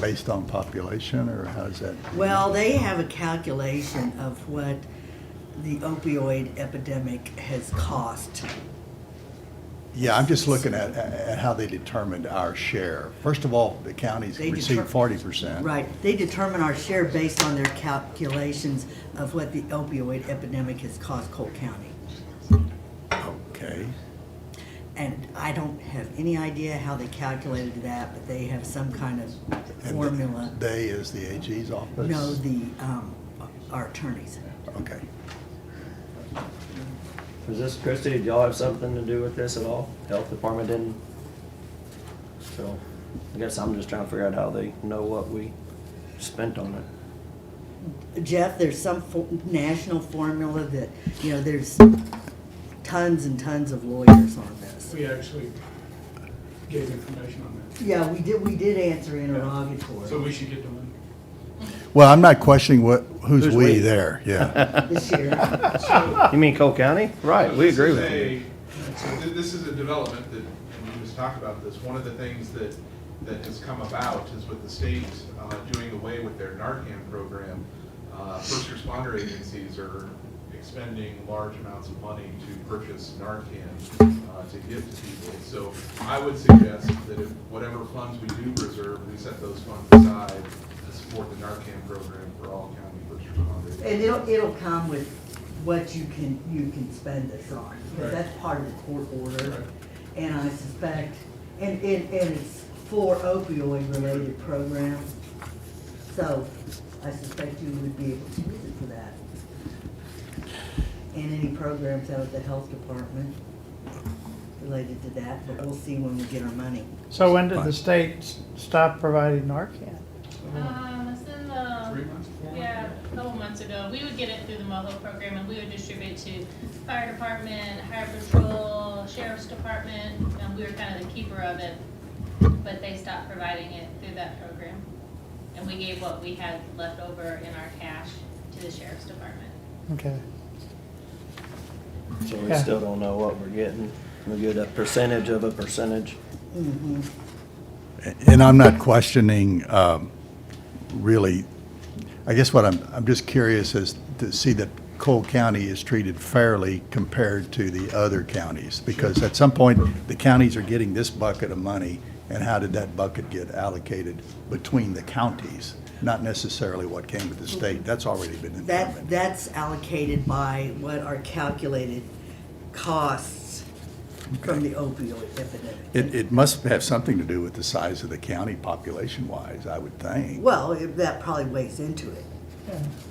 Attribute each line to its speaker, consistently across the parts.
Speaker 1: based on population, or how's that?
Speaker 2: Well, they have a calculation of what the opioid epidemic has cost.
Speaker 1: Yeah, I'm just looking at, at how they determined our share. First of all, the counties
Speaker 2: They
Speaker 1: received
Speaker 2: deter-
Speaker 1: forty percent.
Speaker 2: Right, they determine our share based on their calculations of what the opioid epidemic has cost Cole County.
Speaker 1: Okay,
Speaker 2: And I don't have any idea how they calculated that, but they have some kind of
Speaker 1: And
Speaker 2: formula.
Speaker 1: they is the AG's office?
Speaker 2: No, the, um, our attorneys.
Speaker 1: Okay.
Speaker 3: Was this, Christie, did y'all have something to do with this at all? Health department didn't? So, I guess I'm just trying to figure out how they know what we spent on it.
Speaker 2: Jeff, there's some fo- national formula that, you know, there's tons and tons of lawyers on this.
Speaker 4: We actually gave information on
Speaker 2: Yeah, we did, we did answer
Speaker 4: that. So
Speaker 2: interrogatory
Speaker 4: we should get doing
Speaker 1: Well, I'm not questioning what, who's
Speaker 3: Who's
Speaker 1: we
Speaker 3: we?
Speaker 1: there, yeah.
Speaker 2: this year.
Speaker 4: it. So-
Speaker 3: You mean Cole County? Right, we
Speaker 5: This
Speaker 3: agree
Speaker 5: is
Speaker 3: with you.
Speaker 5: a- So thi- this is a development that, and we just talked about this, one of the things that, that has come about is with the state uh, doing away with their Narcan program, uh, first responder agencies are expending large amounts of money to purchase Narcan uh, to give to people. So I would suggest that if whatever funds we do reserve, we set those funds aside to support the Narcan program for all county first responders.
Speaker 2: And it'll, it'll come with what you can, you can spend this on, because
Speaker 5: Right.
Speaker 2: that's part of the court
Speaker 5: Right.
Speaker 2: order. And I suspect, and, and, and it's for opioid-related programs. So I suspect you would be able to use it for that. And any programs out of the health department related to that, but we'll see when we get our money.
Speaker 6: So when did the state s- stop providing Narcan?
Speaker 7: Um, it's in
Speaker 5: Three
Speaker 7: the,
Speaker 5: months, four months?
Speaker 7: yeah, a couple months ago, we would get it through the MOHO program and we would distribute to fire department, highway patrol, sheriff's department, and we were kind of the keeper of it. But they stopped providing it through that program. And we gave what we had left over in our cash to the sheriff's department.
Speaker 6: Okay.
Speaker 3: So we
Speaker 6: Yeah.
Speaker 3: still don't know what we're getting. We get a percentage of a percentage.
Speaker 2: Mhm.
Speaker 1: And I'm not questioning, um, really, I guess what I'm, I'm just curious is to see that Cole County is treated fairly compared to the other counties. Because at some point, the counties are getting this bucket of money, and how did that bucket get allocated between the counties? Not necessarily what came to the state, that's already been
Speaker 2: That,
Speaker 1: determined.
Speaker 2: that's allocated by what are calculated costs from the opioid epidemic.
Speaker 1: It, it must have something to do with the size of the county population-wise, I would think.
Speaker 2: Well, it- that probably weighs into it,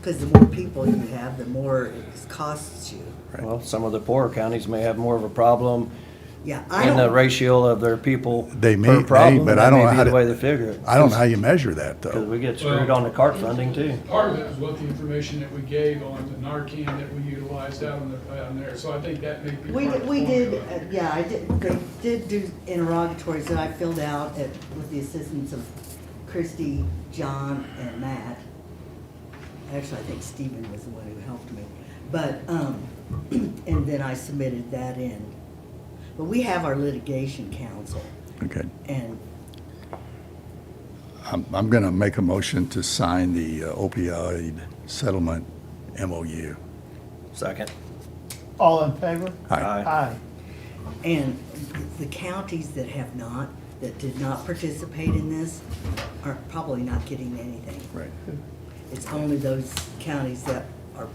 Speaker 2: because the more people you have, the more it costs you.
Speaker 1: Right.
Speaker 3: Well, some of the poorer counties may have more of a problem
Speaker 2: Yeah, I
Speaker 3: in the
Speaker 2: don't,
Speaker 3: ratio of their people
Speaker 1: They may-
Speaker 3: per
Speaker 1: may,
Speaker 3: problem.
Speaker 1: but
Speaker 3: and
Speaker 1: I
Speaker 3: that
Speaker 1: don't
Speaker 3: may
Speaker 1: know
Speaker 3: be
Speaker 1: how
Speaker 3: the
Speaker 1: to-
Speaker 3: way they figure it.
Speaker 1: I don't know how you measure that, though.
Speaker 3: Because we get screwed on the CART funding too.
Speaker 4: Part of it was what the information that we gave on the Narcan that we utilized out on the, on there, so I think that may be
Speaker 2: we,
Speaker 4: part
Speaker 2: did-
Speaker 4: of the
Speaker 2: we did,
Speaker 4: formula.
Speaker 2: uh, yeah, I did, they did do interrogatories that I filled out at, with the assistance of Christy, John, and Matt. Actually, I think Stephen was the one who helped me, but, um, and then I submitted that in. But we have our litigation counsel,
Speaker 1: Okay.
Speaker 2: and
Speaker 1: I'm, I'm going to make a motion to sign the uh, opioid settlement MOU.
Speaker 3: Second.
Speaker 6: All in favor?
Speaker 1: Aye.
Speaker 6: Aye.
Speaker 2: And the counties that have not, that did not participate in this, are probably not getting anything.
Speaker 1: Right.
Speaker 2: It's only those counties that are,
Speaker 3: Well,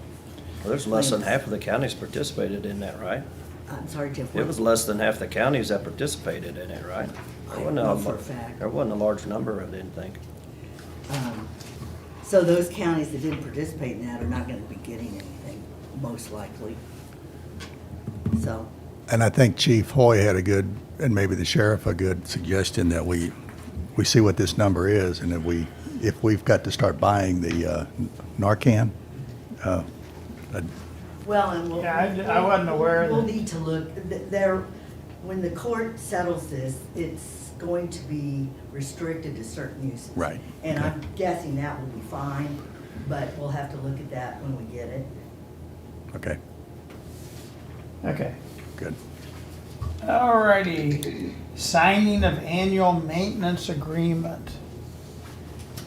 Speaker 3: there's less than half of the counties participated in that, right?
Speaker 2: I'm sorry, Jeff.
Speaker 3: It was less than half the counties that participated in it, right? There
Speaker 2: I
Speaker 3: wasn't
Speaker 2: don't
Speaker 3: a
Speaker 2: know for a
Speaker 3: lar-
Speaker 2: fact.
Speaker 3: There wasn't a large number, I didn't think.
Speaker 2: um, So those counties that didn't participate in that are not gonna be getting anything, most likely. So,
Speaker 1: And I think Chief Hoy had a good, and maybe the sheriff, a good suggestion that we, we see what this number is, and if we, if we've got to start buying the uh, Narcan, uh, uh,
Speaker 2: well, and we'll.
Speaker 6: Yeah, I d- I wasn't aware of
Speaker 2: We'll
Speaker 6: that.
Speaker 2: need to look, th- there, when the court settles this, it's going to be restricted to certain uses.
Speaker 1: right.
Speaker 2: And
Speaker 1: okay.
Speaker 2: I'm guessing that will be fine, but we'll have to look at that when we get it.
Speaker 1: Okay,
Speaker 6: Okay.
Speaker 1: good.
Speaker 6: Alrighty. Signing of annual maintenance agreement.